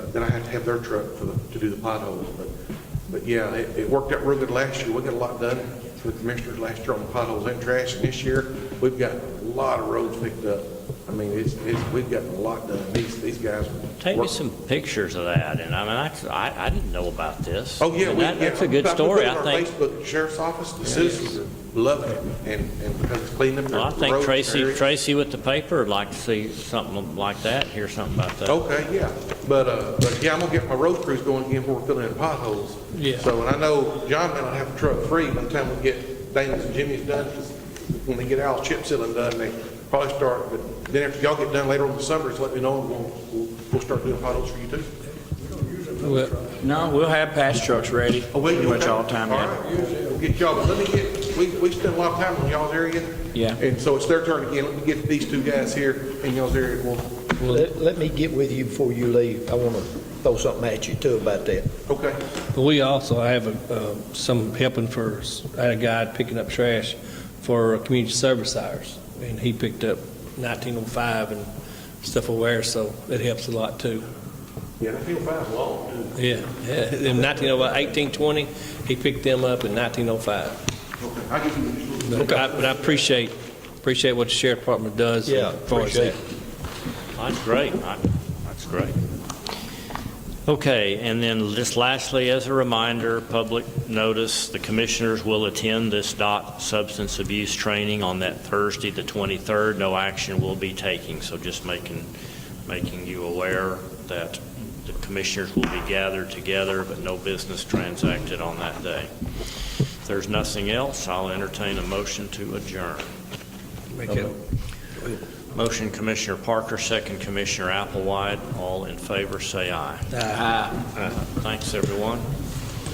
then I have to have their truck for the, to do the potholes, but, but yeah, it, it worked out real good last year, we got a lot done for the commissioners last year on potholes and trash, and this year, we've got a lot of roads picked up. I mean, it's, it's, we've gotten a lot done, these, these guys. Take me work- some pictures of that, and I mean, I, I- I didn't know about this. Oh, yeah, And we, yeah. that- That's a good we put it story, on I our think. Facebook Sheriff's Office, the citizens are loving it, and, and because it's cleaned up. Well, I the think roads, Tracy, areas. Tracy with the paper would like to see something like that, hear something about that. Okay, yeah, but, uh, but yeah, I'm gonna get my road crews going again before we're filling in potholes. Yeah. So, and I know John and I have a truck free by the time we get Dana's and Jimmy's done, 'cause when they get all chip sealing done, they probably start, but then after y'all get done later on in the summer, just let me know, and we'll, we'll, we'll start doing potholes for you too. Well, No, we'll have patch trucks ready Oh, will you? pretty much all the time. All yeah. right, we'll get y'all, but let me get, we, we spend a lot of time on y'all's area. Yeah. And so it's their turn again, let me get these two guys here in y'all's area, and we'll, Let, let me get with you before you leave. I want to throw something at you too about that. okay. we also have uh, some helping for, I had a guy picking up trash for community service hours, and he picked up 1905 and stuff aware, so it helps a lot, too. Yeah, I feel fine, long, too. Yeah, yeah, in 1905, 1820, he picked them up in 1905. Okay, I give you just a little. But I but I appreciate, appreciate what the sheriff department does. Yeah, as far as that. appreciate it. That's great. I- That's great. Okay, and then just lastly, as a reminder, public notice, the commissioners will attend this DOT substance abuse training on that Thursday, the 23rd. No action will be taking, so just making, making you aware that the commissioners will be gathered together, but no business transacted on that day. If there's nothing else, I'll entertain a motion to adjourn. Make it- Motion Commissioner Parker, second Commissioner Applewhite. All in favor, say aye. Aye. Thanks, everyone.